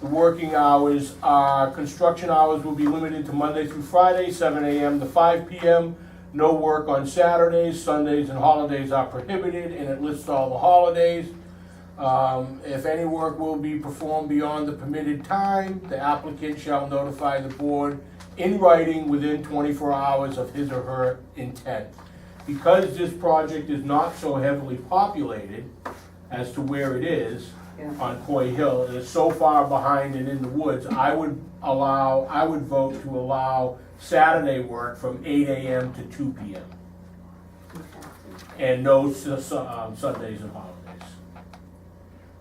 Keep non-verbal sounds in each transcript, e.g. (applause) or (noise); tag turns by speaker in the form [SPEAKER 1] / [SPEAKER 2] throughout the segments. [SPEAKER 1] The working hours, uh, construction hours will be limited to Monday through Friday, seven AM to five PM. No work on Saturdays, Sundays and holidays are prohibited, and it lists all the holidays. Um, if any work will be performed beyond the permitted time, the applicant shall notify the board in writing within twenty-four hours of his or her intent. Because this project is not so heavily populated as to where it is
[SPEAKER 2] Yeah.
[SPEAKER 1] on Coy Hill, and it's so far behind and in the woods, I would allow, I would vote to allow Saturday work from eight AM to two PM. And no su- su- um, Sundays and holidays.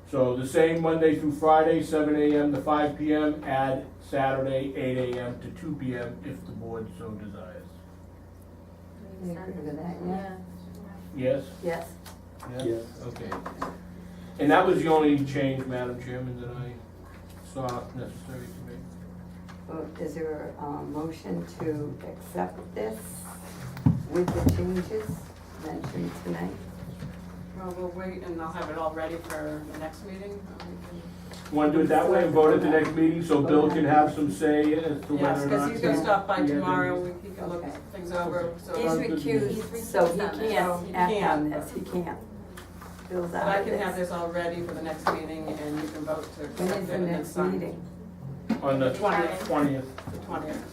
[SPEAKER 1] So the same Monday through Friday, seven AM to five PM, add Saturday, eight AM to two PM if the board so desires.
[SPEAKER 2] You agree with that, yeah?
[SPEAKER 1] Yes?
[SPEAKER 2] Yes.
[SPEAKER 3] Yes.
[SPEAKER 1] Okay. And that was the only change, Madam Chairman, that I saw necessary to make.
[SPEAKER 2] Well, Is there a um, motion to accept this with the changes mentioned tonight?
[SPEAKER 4] Well, we'll wait and I'll have it all ready for the next meeting. uh, we
[SPEAKER 1] Want to do it that way and vote at the next meeting, so Bill can have some say as to
[SPEAKER 4] can- Yes,
[SPEAKER 1] whether or
[SPEAKER 4] because
[SPEAKER 1] not.
[SPEAKER 4] he's gonna stop by tomorrow, we- he can look
[SPEAKER 2] Okay.
[SPEAKER 4] things over, so.
[SPEAKER 1] He's
[SPEAKER 4] But
[SPEAKER 1] recused.
[SPEAKER 2] So he can't act on
[SPEAKER 4] can.
[SPEAKER 2] this, he can't. Bill's out
[SPEAKER 4] I
[SPEAKER 2] of
[SPEAKER 4] can have
[SPEAKER 2] this.
[SPEAKER 4] this all ready for the next meeting and you can vote to
[SPEAKER 2] When is
[SPEAKER 4] accept it
[SPEAKER 2] the
[SPEAKER 4] and then
[SPEAKER 2] next
[SPEAKER 4] sign
[SPEAKER 2] meeting?
[SPEAKER 1] On the twentieth,
[SPEAKER 4] Twentieth.
[SPEAKER 1] twentieth.
[SPEAKER 4] the twentieth.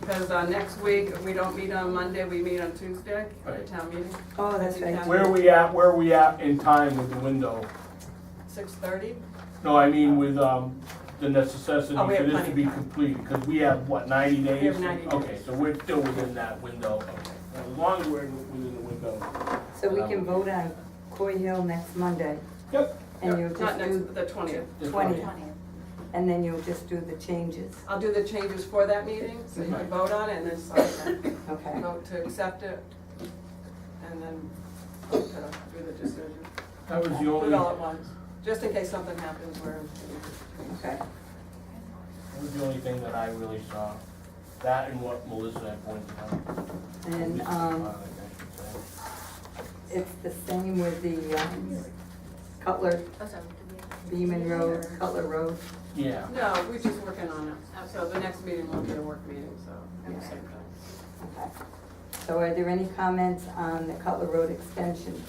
[SPEAKER 4] Because uh, next week, we don't meet on Monday, we meet on Tuesday for the
[SPEAKER 1] Right.
[SPEAKER 4] town meeting,
[SPEAKER 2] Oh, that's right.
[SPEAKER 1] Where are we at, where are we at in time with the window?
[SPEAKER 4] six thirty.
[SPEAKER 1] No, I mean with, um, the necessity
[SPEAKER 4] Oh,
[SPEAKER 1] for
[SPEAKER 4] we have
[SPEAKER 1] this to
[SPEAKER 4] plenty
[SPEAKER 1] be
[SPEAKER 4] of time.
[SPEAKER 1] completed, because we have, what, ninety days?
[SPEAKER 4] have 90 days.
[SPEAKER 1] Okay, so we're still within that window, okay. As long as we're within the window.
[SPEAKER 2] So we can vote on Coy Hill next Monday,
[SPEAKER 1] Yep.
[SPEAKER 2] and you'll
[SPEAKER 4] Not
[SPEAKER 2] just
[SPEAKER 4] next,
[SPEAKER 2] do
[SPEAKER 4] but the twentieth.
[SPEAKER 1] that's fine.
[SPEAKER 2] twenty, and then you'll just do the changes,
[SPEAKER 4] I'll do the changes for that meeting, so you
[SPEAKER 1] Right.
[SPEAKER 4] can vote on it and then sign it.
[SPEAKER 2] okay?
[SPEAKER 4] vote to accept it, and then uh, do the decision.
[SPEAKER 1] That was the
[SPEAKER 4] Do
[SPEAKER 1] only,
[SPEAKER 4] it all
[SPEAKER 1] that
[SPEAKER 4] at once, just in case something happens where,
[SPEAKER 2] Okay,
[SPEAKER 1] was the only thing that I really saw. That and what Melissa had pointed out.
[SPEAKER 2] and, um, it's the same with the, um, Cutler, Beaman Road, Cutler Road.
[SPEAKER 1] Yeah,
[SPEAKER 4] no, we're just working on it. So the next meeting will be a work meeting, so.
[SPEAKER 2] Okay.
[SPEAKER 4] same thing.
[SPEAKER 2] Okay. So are there any comments on the Cutler Road extension?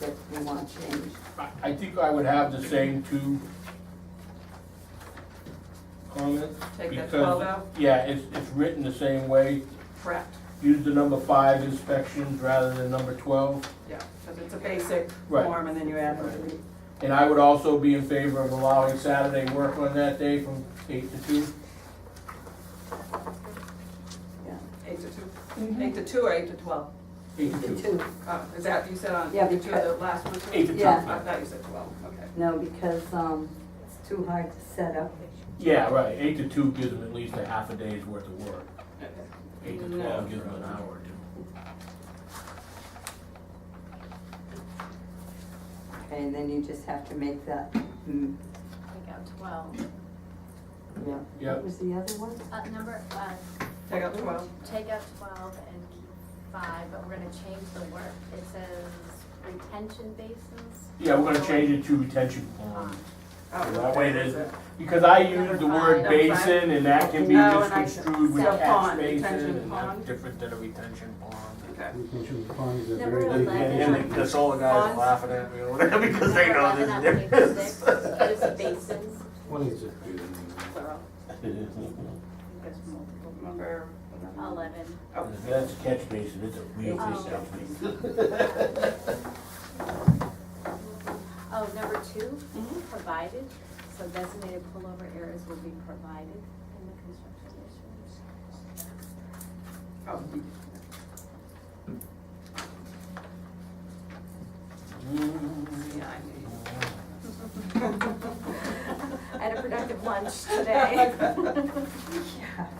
[SPEAKER 2] That we want changed?
[SPEAKER 1] I, I think I would have the same two comments.
[SPEAKER 4] Take that
[SPEAKER 1] because-
[SPEAKER 4] 12 out?
[SPEAKER 1] Yeah, it's, it's written the same way.
[SPEAKER 4] Correct,
[SPEAKER 1] Use the number five inspections rather than number twelve.
[SPEAKER 4] yeah, because it's a basic
[SPEAKER 1] Right.
[SPEAKER 4] form, and then you add the
[SPEAKER 1] And I would also be in favor of allowing Saturday work on that day from eight to two.
[SPEAKER 2] Yeah.
[SPEAKER 4] eight to two, eight to two or eight to twelve?
[SPEAKER 1] Eight to
[SPEAKER 2] The
[SPEAKER 1] two.
[SPEAKER 2] two,
[SPEAKER 4] Uh, Is that, you said on
[SPEAKER 2] Yeah,
[SPEAKER 4] eight to two, the
[SPEAKER 2] because-
[SPEAKER 4] last one?
[SPEAKER 1] Eight to two.
[SPEAKER 4] I
[SPEAKER 2] Yeah.
[SPEAKER 4] thought you said twelve, okay.
[SPEAKER 2] no, because, um, it's too hard to set up.
[SPEAKER 1] Yeah, right, eight to two gives them at least a half a day's worth of work. Eight to
[SPEAKER 4] No.
[SPEAKER 1] twelve gives them an hour or two.
[SPEAKER 2] Okay, and then you just have to make that, mm,
[SPEAKER 5] Take out twelve.
[SPEAKER 2] yeah. What
[SPEAKER 1] Yep,
[SPEAKER 2] was the other one?
[SPEAKER 5] Uh, number, uh,
[SPEAKER 4] Take out twelve. Oh,
[SPEAKER 5] take out twelve and keep five, but we're gonna change the word. It says retention basins. Um,
[SPEAKER 1] yeah, we're gonna change it to retention (laughs) ponds.
[SPEAKER 4] Oh,
[SPEAKER 1] That way it
[SPEAKER 4] that's
[SPEAKER 1] is. Because I
[SPEAKER 5] Number
[SPEAKER 1] use the word
[SPEAKER 5] five.
[SPEAKER 1] basin and that can be
[SPEAKER 4] No, and I-
[SPEAKER 1] misconstrued with
[SPEAKER 4] it's a
[SPEAKER 1] catch
[SPEAKER 4] pond,
[SPEAKER 1] basin
[SPEAKER 4] retention
[SPEAKER 1] and
[SPEAKER 4] pond.
[SPEAKER 1] that's different than a retention pond.
[SPEAKER 4] Okay.
[SPEAKER 3] We can choose ponds that are
[SPEAKER 5] Number
[SPEAKER 3] very big.
[SPEAKER 5] eleven.
[SPEAKER 3] and-
[SPEAKER 5] Yeah.
[SPEAKER 1] that's all the
[SPEAKER 4] guys are
[SPEAKER 1] laughing at me (laughs) because
[SPEAKER 5] Number 11 on page six, It is basins,
[SPEAKER 3] One is it?
[SPEAKER 4] Plural.
[SPEAKER 1] (laughs)
[SPEAKER 4] That's multiple. Number.
[SPEAKER 5] eleven.
[SPEAKER 4] Oh.
[SPEAKER 1] That's a catch basin, it's a real
[SPEAKER 5] Oh. Oh, number two, provided, so designated pullover areas will be provided in the construction district.
[SPEAKER 4] Oh, yeah, I knew you. (laughs)
[SPEAKER 5] I had a productive lunch today.
[SPEAKER 2] Yeah.